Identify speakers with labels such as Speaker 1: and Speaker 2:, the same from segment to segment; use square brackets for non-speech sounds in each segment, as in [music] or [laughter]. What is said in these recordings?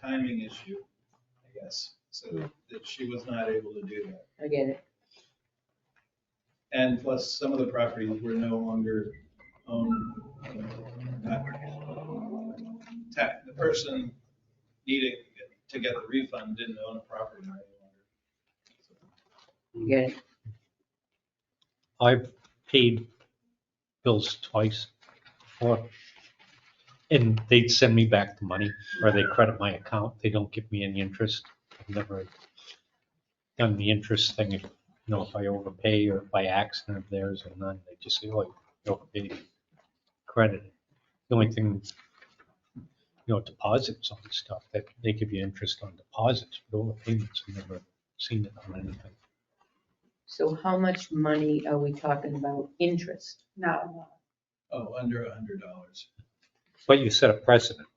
Speaker 1: timing issue, I guess, so that she was not able to do that.
Speaker 2: I get it.
Speaker 1: And plus, some of the properties were no longer owned. you know, not- ta- The person needing to get the refund didn't own a property any longer. So,
Speaker 2: I Get it.
Speaker 3: I've paid bills twice before. And they send me back the money or they credit my account. They don't give me any interest. I've never done the interest thing. If, you know, if I overpay or by accident if theirs or none, they just say, oh, you overpaid. Credit. The only thing, you know, deposits on stuff that they give you interest on deposits, but overpayments, I've never seen it on anything.
Speaker 2: So how much money are we talking about interest?
Speaker 4: No,
Speaker 1: Oh, under a hundred dollars.
Speaker 3: But you set a precedent.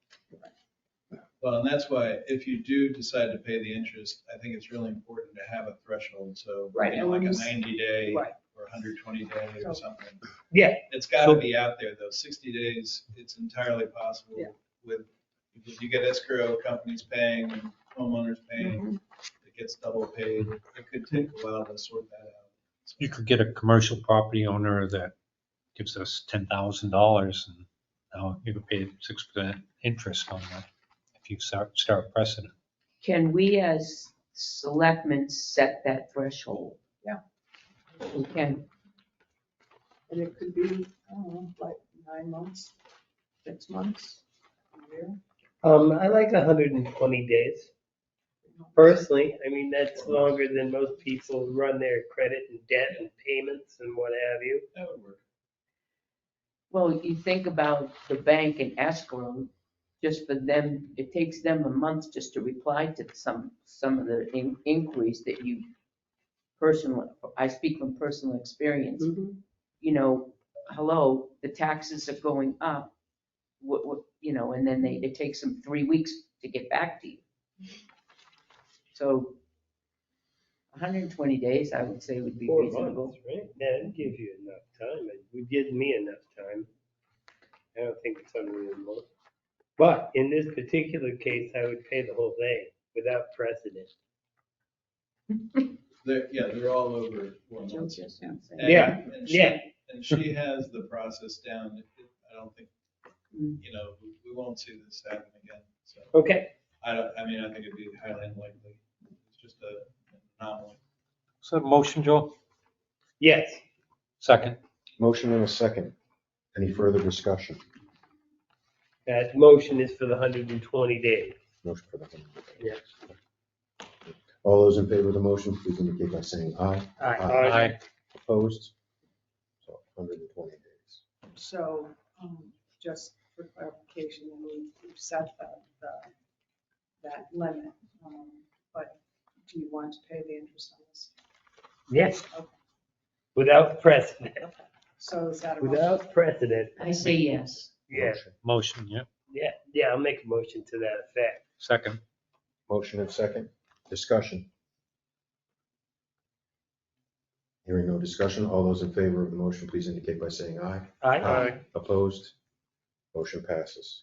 Speaker 1: Well, and that's why if you do decide to pay the interest, I think it's really important to have a threshold, so.
Speaker 2: Right,
Speaker 1: you know,
Speaker 4: and
Speaker 1: Like
Speaker 4: when
Speaker 1: a
Speaker 4: you s-
Speaker 1: ninety day
Speaker 4: Right.
Speaker 1: or hundred twenty day or something.
Speaker 3: Yeah.
Speaker 1: It's gotta
Speaker 3: So-
Speaker 1: be out there though. Sixty days, it's entirely possible
Speaker 4: Yeah.
Speaker 1: with, if you get escrow companies paying, homeowners paying, it gets double paid. It could take a while to sort that out. So-
Speaker 3: You could get a commercial property owner that gives us ten thousand dollars and now you could pay six percent interest on that if you start, start precedent.
Speaker 2: Can we as selectmen set that threshold?
Speaker 4: Yeah.
Speaker 2: We can,
Speaker 4: and it could be, I don't know, like nine months, six months, a year.
Speaker 5: Um, I like hundred and twenty days personally. I mean, that's longer than most people run their credit and debt and payments and what have you.
Speaker 1: That would work.
Speaker 2: well, you think about the bank and escrow, just for them, it takes them a month just to reply to some, some of the in- inquiries that you personally, I speak from personal experience.
Speaker 5: Mm-hmm.
Speaker 2: you know, hello, the taxes are going up. What, what, you know, and then they, it takes them three weeks to get back to you. So hundred and twenty days, I would say would be
Speaker 5: Four
Speaker 2: reasonable.
Speaker 5: months, right? Yeah, it'd give you enough time. It would give me enough time. I don't think it's unreasonable. But in this particular case, I would pay the whole thing without precedent.
Speaker 1: They're, yeah, they're all over four
Speaker 2: Joe
Speaker 1: months.
Speaker 2: just now said.
Speaker 1: And-
Speaker 5: Yeah,
Speaker 1: and she-
Speaker 5: Yeah,
Speaker 1: And she has the process down. I don't think,
Speaker 2: Mm.
Speaker 1: you know, we- we won't see this happen again. So
Speaker 5: okay.
Speaker 1: I don't, I mean, I think it'd be highly unlikely. It's just a an anomaly.
Speaker 3: So motion, Joel?
Speaker 5: Yes.
Speaker 3: Second.
Speaker 6: Motion and a second. Any further discussion?
Speaker 5: That motion is for the hundred and twenty days.
Speaker 6: Motion for the hundred.
Speaker 5: Yes.
Speaker 6: All those in favor of the motion, please indicate by saying aye. Aye. Opposed? So 120 days.
Speaker 4: So, um, just for clarification, we- we've set the, the, that limit, um, but do you want to pay the interest on this?
Speaker 5: Yes. Without precedent,
Speaker 4: So is that a? motion?
Speaker 5: without precedent.
Speaker 2: I say yes.
Speaker 5: Yeah,
Speaker 6: Motion-
Speaker 3: Motion, yeah.
Speaker 5: yeah, yeah, I'll make a motion to that effect.
Speaker 3: Second.
Speaker 6: Motion and second. Discussion. Hearing no discussion. All those in favor of the motion, please indicate by saying aye. Opposed? Motion passes.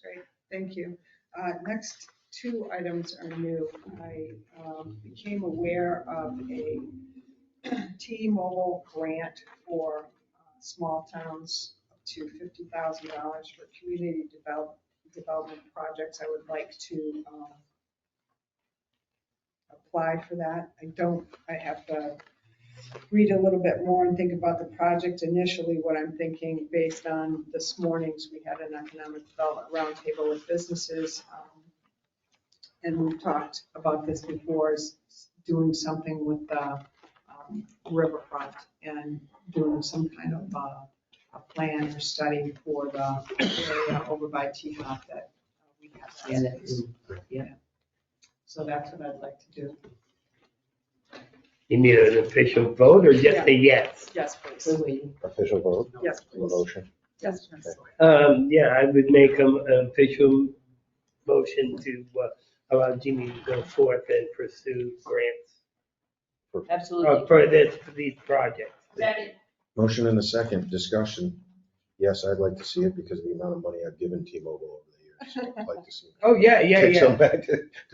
Speaker 4: Thank you. Uh, Next two items are new. I um, became aware of a [clears throat] T-Mobile grant for uh, small towns up to $50,000 for community develop- development projects. I would like to um, apply for that. I don't, I have to read a little bit more and think about the project initially, what I'm thinking based on this morning's, we had an economic development roundtable with businesses. um, And we've talked about this before, is doing something with the um, riverfront and doing some kind of uh, a plan or study for the area over by T-Hop that we have.
Speaker 2: Yeah, that's-
Speaker 4: So that's what I'd like to do.
Speaker 5: You need an official vote or just a yes?
Speaker 4: Yes, please.
Speaker 2: We're waiting.
Speaker 6: Official vote
Speaker 4: Yes,
Speaker 6: on the
Speaker 4: please.
Speaker 6: motion.
Speaker 4: Yes, please.
Speaker 5: Um, yeah, I would make um, an official motion to uh, allow Jimmy to go forth and pursue grants uh,
Speaker 2: Absolutely.
Speaker 5: for this, for these projects.
Speaker 6: Motion and a second. Discussion. Yes, I'd like to
Speaker 5: [laughs]
Speaker 6: see it because of the amount of money I've given T-Mobile over the years. I'd like to see it.
Speaker 5: Oh, yeah, yeah,
Speaker 6: Take
Speaker 5: yeah.
Speaker 6: some back to